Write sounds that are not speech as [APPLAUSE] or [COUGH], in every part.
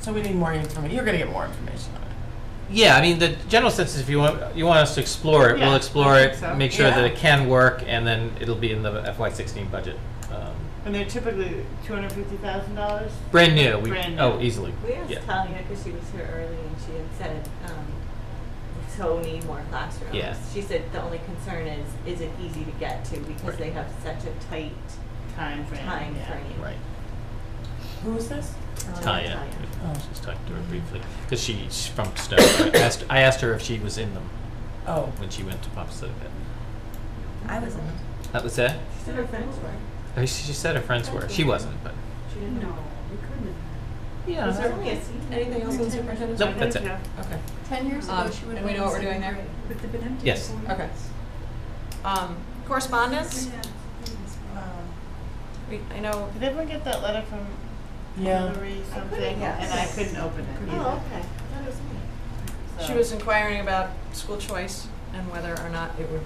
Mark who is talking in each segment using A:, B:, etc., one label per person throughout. A: So we need more information. You're going to get more information on it.
B: Yeah, I mean, the general sense is if you want, you want us to explore it,
A: Yeah,
B: we'll explore
A: I
B: it,
A: think so.
B: make sure that
A: Yeah.
B: it can work, and then it'll be in the FY sixteen budget. Um,
C: And they're typically two hundred fifty thousand dollars?
B: Brand new, we,
C: Brand new.
B: oh, easily.
D: We asked
B: Yeah.
D: Tanya because she was here early and she had said, um, we so need more classrooms.
B: Yeah.
D: She said the only concern is, is it easy to get to because
B: Right.
D: they have such a tight
C: Time frame.
D: time frame.
B: Right.
A: Who is this?
D: Um,
B: Tanya,
A: Oh.
B: just talked to her briefly, because she's from Stowe. I [COUGHS] asked, I asked her if she was in them
A: Oh,
B: when she went to Popsicle.
D: I was,
B: That was it?
D: she said her friends were.
B: I mean, she she said her friends were, she wasn't, but.
D: She didn't
E: Uh,
D: know.
B: Yeah.
D: Was there only a senior?
A: anything else on the superintendent's?
B: Nope, that's it.
A: Okay.
F: Ten years ago,
G: Um,
F: she would have
G: and we
F: been
G: know what we're
F: in
G: doing there?
F: second grade.
G: But they've been empty.
B: Yes.
G: Okay.
F: Okay.
G: Um, correspondence? We, I know,
C: Did everyone get that letter from
A: Yeah.
C: Hillary something?
D: yes.
C: And I couldn't open it
D: Oh,
C: either.
D: okay. I thought it was me.
C: Uh.
G: she was inquiring about school choice and whether or not it would,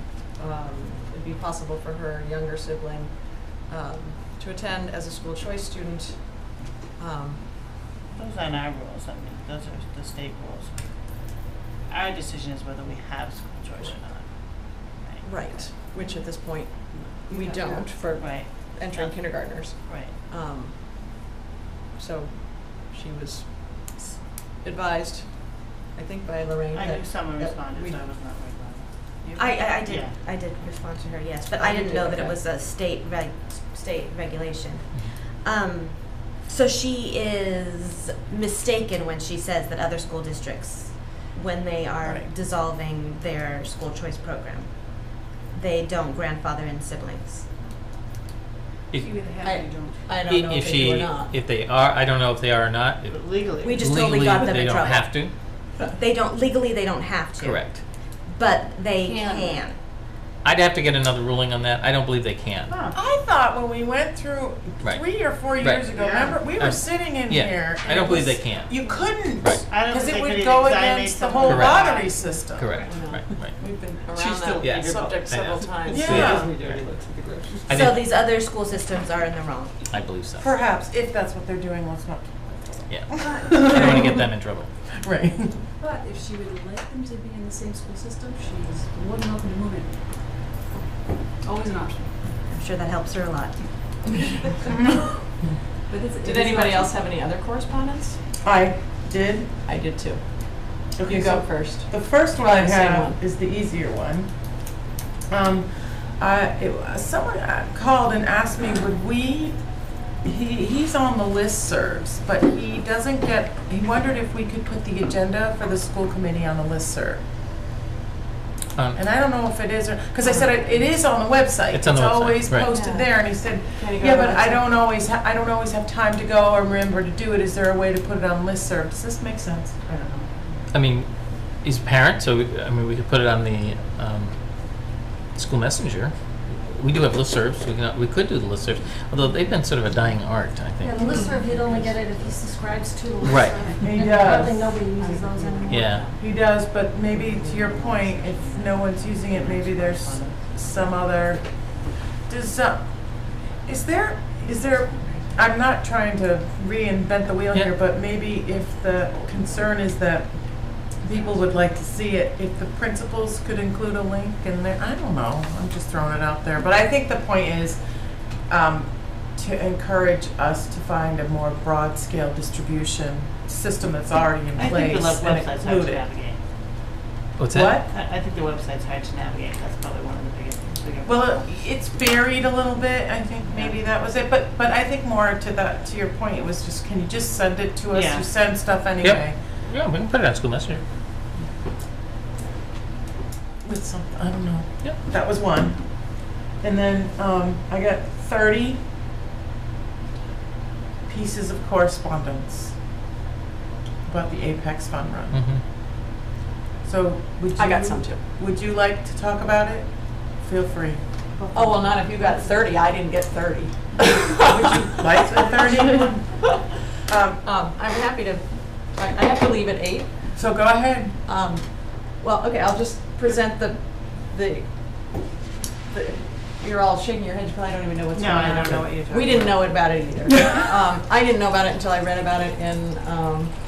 G: um, it'd be possible for her younger sibling, um, to attend as a school choice student. Um,
C: Those aren't our rules, I mean, those are the state rules. Our decision is whether we have school choice or not.
G: right, which at this point, we don't for
C: Right,
G: entering kindergartners.
C: right.
G: Um, so she was advised, I think by Lorraine,
C: I
G: that.
C: knew someone
G: that
C: responded,
G: we-
C: so I was not worried about it. You?
E: I, I, I did,
C: Yeah.
E: I did respond to her, yes, but
G: Oh,
E: I
G: you
E: didn't
G: did,
E: know that it
G: okay.
E: was a state reg, state regulation. Um, so she is mistaken when she says that other school districts, when they are
A: Right.
E: dissolving their school choice program, they don't grandfather in siblings.
B: If-
G: I, I don't know
B: If
G: if they
B: she,
G: do or not.
B: if they are, I don't know if they are or not. If
C: But legally.
E: We just totally got them in trouble.
B: Legally,
E: They don't, legally, they don't have
B: they don't have
E: to.
B: to, correct.
E: But they
F: Can.
E: can.
B: I'd have to get another ruling on that, I don't believe they can.
C: Huh.
A: I thought when we went through
B: Right.
A: three or four
B: Right.
A: years ago,
C: Yeah.
A: remember, we were
B: Um,
A: sitting in
B: yeah.
A: here.
B: I
A: and
B: don't
A: it
B: believe
A: was-
B: they can.
A: You couldn't,
B: Right.
C: I don't
A: because it
C: think they could
A: would
C: even
A: go
C: exonerate
A: against the whole
C: someone.
B: Correct.
A: lottery system.
B: Correct, right, right.
G: We've been
C: She's still
G: around
B: Yeah.
G: that subject
B: I know.
G: several times.
A: Yeah.
B: I
E: So
B: didn't-
E: these other school systems are in the wrong.
B: I believe so.
A: Perhaps, if that's what they're doing, let's not.
E: [LAUGHS]
B: Yeah. I don't want to get them in trouble.
A: Right.
F: But if she would like them to be in the same school system, she's more than welcome to move it. Always an option.
E: I'm sure that helps her a lot.
F: But it's- it
G: Did
F: is
G: anybody
F: not-
G: else have any other correspondence?
A: [LAUGHS] I did.
G: I did too.
A: Okay,
G: You
A: so
G: go first.
A: The first one I
G: Same
A: have
G: one.
A: is the easier one. Um, I, it, someone uh, called and asked me, would we, he, he's on the listservs, but he doesn't get, he wondered if we could put the agenda for the school committee on the listserv.
B: Um,
A: And I don't know if it is or, because I said it, it is on the website.
B: It's on the website,
A: always
B: right.
A: posted there, and he said,
G: Can you go
A: yeah,
G: to the
A: but I
G: website?"
A: don't always, ha- I don't always have time to go or remember to do it. Is there a way to put it on listserv? Does this make sense? I don't know.
B: I mean, he's a parent, so we- I mean, we could put it on the um, school messenger. We do have listservs. We, can, we could do the listservs, although they've been sort of a dying art, I think.
F: Yeah, the listserv, he'd only get it if he subscribes to the listserv.
B: Right.
A: He
F: And
A: does.
F: Probably nobody uses those anymore.
B: Yeah.
A: He does, but maybe to your point, if no one's using it, maybe there's some other, does, uh, is there, is there, I'm not trying to reinvent the wheel here,
B: Yeah.
A: but maybe if the concern is that people would like to see it, if the principals could include a link in there, I don't know, I'm just throwing it out there. But I think the point is, um, to encourage us to find a more broad-scale distribution system that's already in
C: I think the
A: place
C: web-
A: and
C: website's hard
A: include
C: to
A: it.
C: navigate.
B: What's
A: What?
B: that?
C: I, I think the website's hard to navigate, that's probably one of the biggest, bigger.
A: Well, it's buried a little bit, I think maybe that was it, but, but I think more to that, to your point, it was just, can you just send it to us?
C: Yeah.
A: You send stuff anyway.
B: Yeah, we can put it on school messenger.
A: With some, I don't know.
B: Yep.
A: That was one. And then, um, I got thirty pieces of correspondence about the Apex Fun Run.
B: hmm
A: So would you?
G: I got some too.
A: Would you like to talk about it? Feel free.
G: Oh, well, not if you got thirty, I didn't get thirty.
A: Like the thirty?
G: [LAUGHS]
A: Um,
G: Um, I'm happy to, I, I have to leave at eight.
A: so go ahead.
G: Um, well, okay, I'll just present the, the, the, you're all shaking your heads, you probably don't even know what's
C: No,
G: going on.
C: I don't know what you're talking [LAUGHS]
G: We didn't know about it either. Um, I didn't know about it until I read about it in, um,